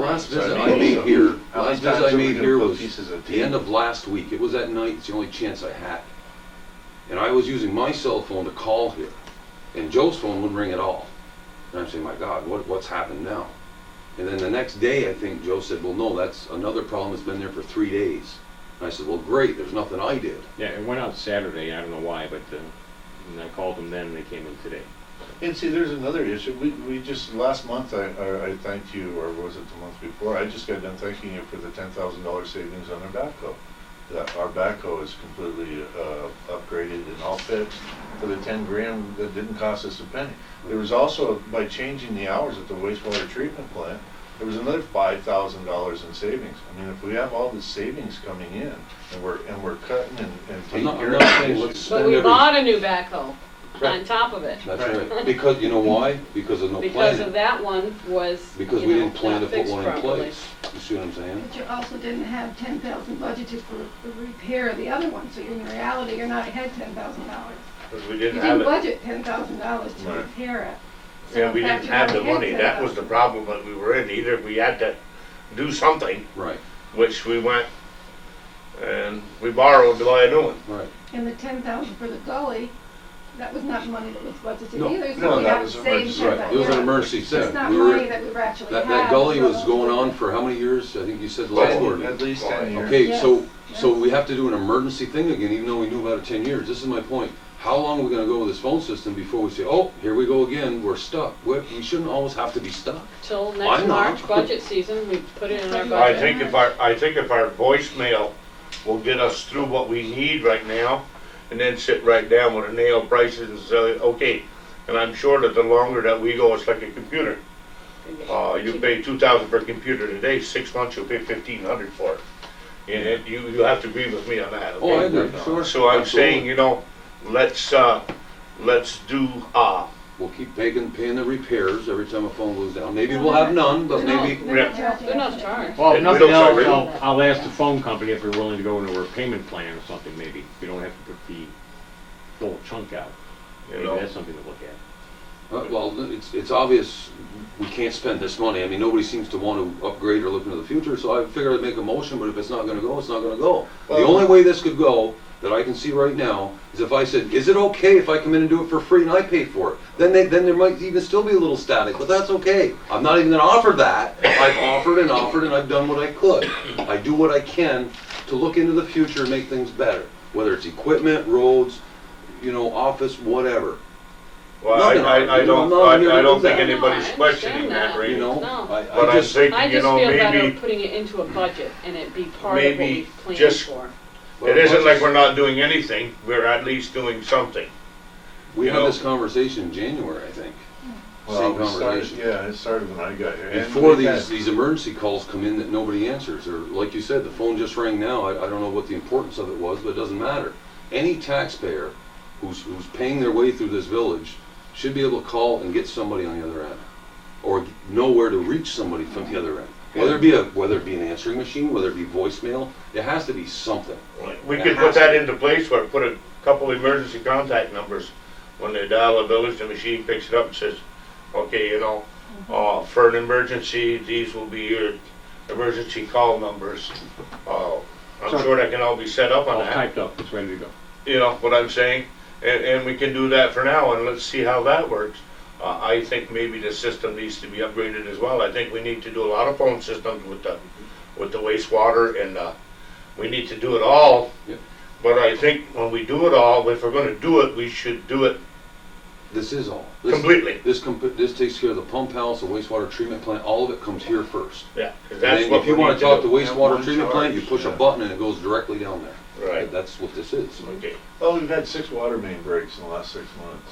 last visit So I made so here, how last many visit times I are we made gonna here put was pieces of the end tape? of last week. It was that night, it's the only chance I had. And I was using my cell phone to call here, and Joe's phone wouldn't ring at all. And I'm saying, my God, what, what's happened now? And then the next day, I think Joe said, well, no, that's another problem that's been there for three days. And I said, well, great, there's nothing I did. Yeah, it went out Saturday, I don't know why, but, uh, and I called them then, and they came in today. And see, there's another issue. We, we just, last month, I, I- I thanked you, or was it the month before? I just got done thanking you for the ten thousand dollar savings on our backhoe. That our backhoe is completely, uh, upgraded and all fixed for the ten grand that didn't cost us a penny. There was also, by changing the hours at the wastewater treatment plant, there was another five thousand dollars in savings. I mean, if we have all the savings coming in and we're, and we're cutting and, and I'm taking not, I'm care of not saying the let's issues. spend But we every. bought a new backhoe on Right. top of it, That's right, because, you know why? Because of no because planning. of that one was, you Because we know, didn't plan to not put fixed one in properly. place. You see what I'm saying? But you also didn't have ten thousand budgeted for the repair of the other one, so in reality, you're not ahead ten thousand dollars. Because we You didn't have didn't it. budget ten thousand dollars to Right. repair it. So Yeah, we in fact, didn't you have the already money. had That was the problem that we were in. Either we had to do something, Right, which we went and we borrowed to buy a new one. right. And the ten thousand for the gully, that was not money that was budgeted No, either, no, so we that got was saved emergency. ten thousand. Right, it was an emergency It's set. not We were, money that we actually had. that, that gully so- was going on for how many years? I think you said last Ten- quarter. At least ten years. Okay, so, Yes, so yes. we have to do an emergency thing again, even though we knew about it ten years. This is my point. How long are we gonna go with this phone system before we say, oh, here we go again, we're stuck? We, we shouldn't always have to be stuck. Till Why next not? March budget season, we put it in our I budget. think if our, I think if our voicemail will get us through what we need right now, and then sit right down with a nail prices and say, okay, and I'm sure that the longer that we go, it's like a computer. Uh, you pay two thousand for a computer today, six months you'll pay fifteen hundred for it. And it, you, you have to agree with me on that, Oh, I okay? agree, sure. So I'm absolutely. saying, you know, let's, uh, let's do, uh, We'll keep paying, paying the repairs every time a phone goes down. Maybe we'll have none, but No, maybe, they're not charging They're not us. charged. Well, Hey, if we nothing don't else, charge I'll, I'll ask the phone company if they're willing to go into a repayment plan or something, maybe. We don't have to put the full chunk out. you Maybe know, that's something to look at. uh, well, it's, it's obvious we can't spend this money. I mean, nobody seems to want to upgrade or look into the future, so I figured I'd make a motion, but if it's not gonna go, it's not gonna go. The Well- only way this could go, that I can see right now, is if I said, is it okay if I come in and do it for free and I pay for it? Then they, then there might even still be a little static, but that's okay. I'm not even gonna offer that. I've offered and offered and I've done what I could. I do what I can to look into the future and make things better, whether it's equipment, roads, you know, office, whatever. well, I, Nothing. I, I don't, No, no, I, I don't no, think no, I anybody's understand questioning that. that, You Randy. know, No. I, But I I'm just, I thinking, you just know, feel better maybe, putting it into a budget and it be part of what Maybe we planned just- for. it isn't like we're not doing anything, we're at least doing something. we you had know. this conversation in January, I think. Well, Same we started, conversation. yeah, it started when I got here. And Before we've these, had- these emergency calls come in that nobody answers, or like you said, the phone just rang now, I, I don't know what the importance of it was, but it doesn't matter. Any taxpayer who's, who's paying their way through this village should be able to call and get somebody on the other end, or know where to reach somebody from the other end. Whether it be a, whether it be an answering machine, whether it be voicemail, it has to be something. We could put that into place where, put a couple emergency contact numbers. When they dial a village, the machine picks it up and says, okay, you know, uh, for an emergency, these will be your emergency call numbers. Uh, I'm Sure. sure that can all be set up on All that, typed up, it's ready to go. you know what I'm saying? And, and we can do that for now and let's see how that works. Uh, I think maybe the system needs to be upgraded as well. I think we need to do a lot of phone systems with the, with the wastewater and, uh, we need to do it all but I think when we do it all, if we're gonna do it, we should do it This is all. This- completely. This, comp- this takes care of the pump house, the wastewater treatment plant, all of it comes here first. Yeah. 'cause And that's then what if you we want need to talk to to wastewater One treatment plant, you charge, push a yeah. button and it goes directly down there. do. Right, That's what this is. okay. Well, we've had six water main breaks in the last six months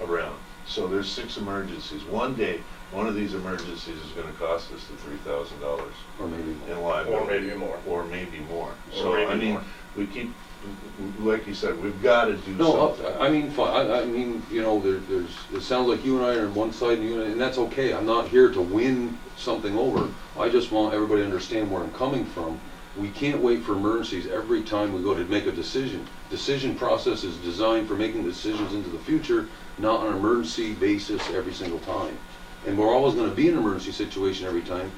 around. So there's six emergencies. One day, one of these emergencies is gonna cost us the three thousand dollars Or maybe in more. Or liability. maybe more. Or maybe more. Or So, maybe I mean, more. we keep, w- w- like you said, we've gotta do No, uh, something. I I mean, fine, I, I mean, you know, there, there's, it sounds like you and I are on one side and you and I, and that's okay. I'm not here to win something over. I just want everybody to understand where I'm coming from. We can't wait for emergencies every time we go to make a decision. Decision process is designed for making decisions into the future, not on an emergency basis every single time. And we're always gonna be in an emergency situation every time.